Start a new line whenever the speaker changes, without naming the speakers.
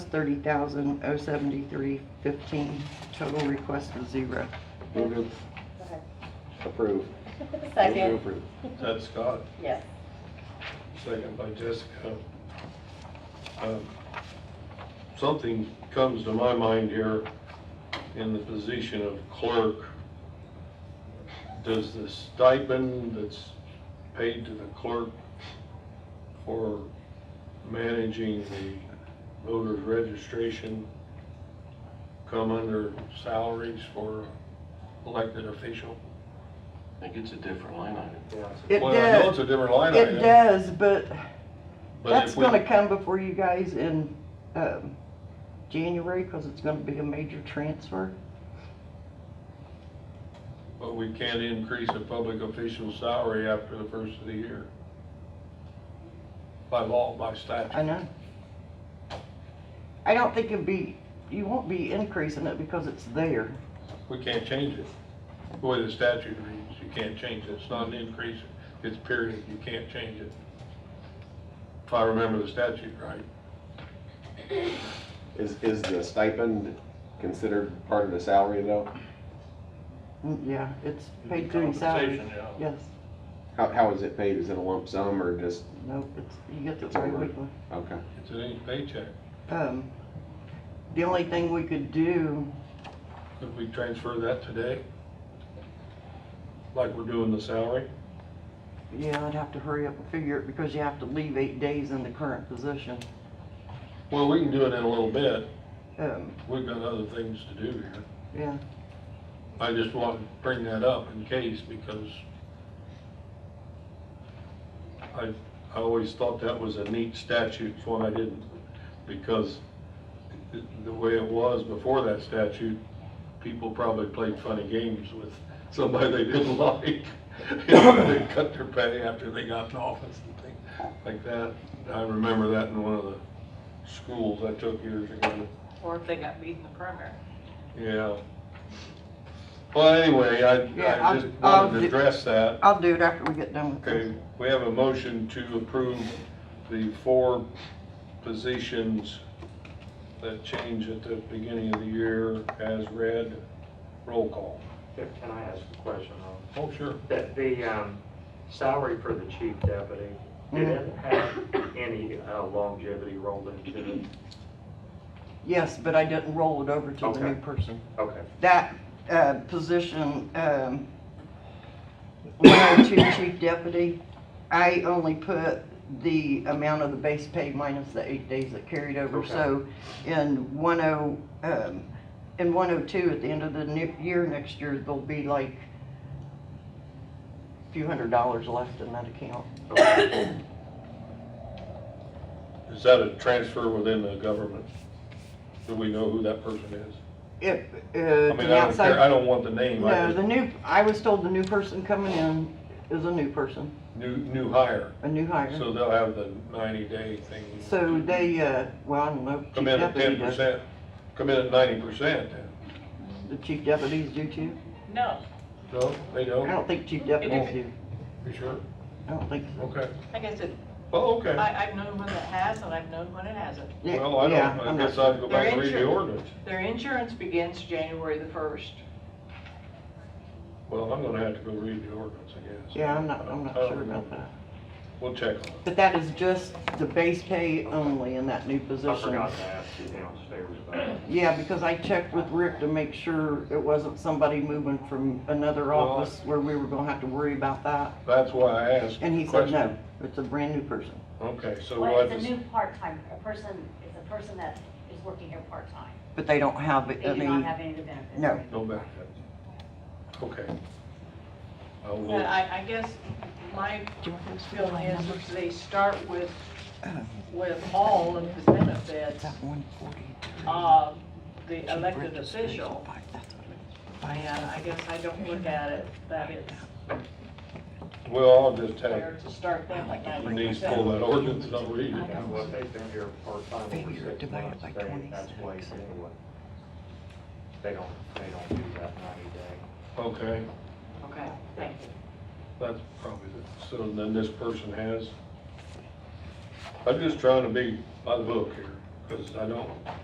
thirty thousand oh seventy-three fifteen. Total request was zero.
Move to approve. Move to
Second,
approve.
That's Scott,
yes.
second by Jessica. Um, Something comes to my mind here in the position of clerk. Does the stipend that's paid to the clerk for managing the voter's registration come under salaries for elected official?
I think it's a different line item.
It
Well, I know
does.
it's a different line item.
It does, but
but
that's
if we-
gonna come before you guys in, um, January, cause it's gonna be a major transfer.
But we can't increase a public official's salary after the first of the year. By law, by
I
statute.
know. I don't think it'd be, you won't be increasing it because it's there.
We can't change it. The way the statute reads, you can't change it. It's not an increase, it's period. You can't change it. If I remember the statute right.
Is, is the stipend considered part of the salary though?
Mm, Yeah, it's paid through salary.
Compensation, yeah.
Yes,
How, how is it paid? Is it a lump sum or just,
no, it's, you get the
It's all
very
right.
weekly.
okay.
It's an each paycheck.
Um, the only thing we could do,
Could we transfer that today? Like we're doing the salary?
yeah, I'd have to hurry up and figure it because you have to leave eight days in the current position.
Well, we can do it in a little bit.
Um,
We've got other things to do here.
yeah,
I just want to bring that up in case, because I, I always thought that was a neat statute, it's one I didn't, because the- the way it was before that statute, people probably played funny games with somebody they didn't like. They cut their pay after they got in office and things like that. I remember that in one of the schools I took years ago.
Or if they got beat in the primary.
Yeah. Well, anyway, I,
Yeah,
I
I'll-
just
I'll
wanted to
do-
address that.
I'll do it after we get done with
Okay,
this.
we have a motion to approve the four positions that change at the beginning of the year as read. Roll call.
Can I ask a question? though?
Oh, sure.
That the um, salary for the chief deputy, did it have any uh, longevity rolled into it?
Yes, but I didn't roll it over to the new
Okay.
person.
Okay,
That, uh, position, um, one oh two chief deputy, I only put the amount of the base pay minus the eight days that carried over.
Okay.
So in one oh, um, in one oh two, at the end of the new year, next year, there'll be like a few hundred dollars left in that account.
okay.
Is that a transfer within the government? Do we know who that person is?
If, uh,
I mean,
the
I don't care, I
outside,
don't want the name, I
no, the
just,
new, I was told the new person coming in is a new person,
new, new hire.
a new hire.
So they'll have the ninety day thing.
So they, uh, well, I don't know.
Come
chief
in at
deputy
ten
does.
percent, come in at ninety percent then.
The chief deputies do too?
No,
No, they
I
don't?
don't think chief deputies do.
You sure?
I don't think so.
Okay.
I guess it,
Oh, okay.
I, I've known one that has and I've known one that hasn't.
Yeah,
Well, I
yeah, I'm
don't, I
not
guess I'd go
They're
back and read the
insured.
ordinance.
Their insurance begins January the first.
Well, I'm gonna have to go read the ordinance, I Oh. guess.
Yeah, I'm not, I'm not
I don't
sure about
remember.
that.
We'll check on it.
But that is just the base pay only in that new
I
position.
forgot to ask you downstairs about it.
Yeah, because I checked with Rick to make sure it wasn't somebody moving from another
Well, I-
office where we were gonna have to worry about that.
That's why I asked.
And he
the
said, no,
question.
it's a brand new person.
Okay, so
Well,
what
it's a
is,
new part-time, a person, it's a person that is working here part-time.
But they don't have
They
it, I
do not
mean,
have any of the benefits.
no.
right?
no benefit. Okay. I will-
But I, I guess my feeling is if they start with, with all of the benefits,
one forty-three.
uh, the elected official. uh, And I guess I don't look at it that it's
Well, I'll just
fair
have
to start them at ninety
Denise pull
percent.
that ordinance and I'll read it.
And what they've been here part-time over
Figure
six
divided
months,
by
they, that's
26.
why you anyway. They don't, they don't do that ninety day.
Okay,
Okay, thank you.
that's probably, the- so then this person has. I'm just trying to be by the book here, because I don't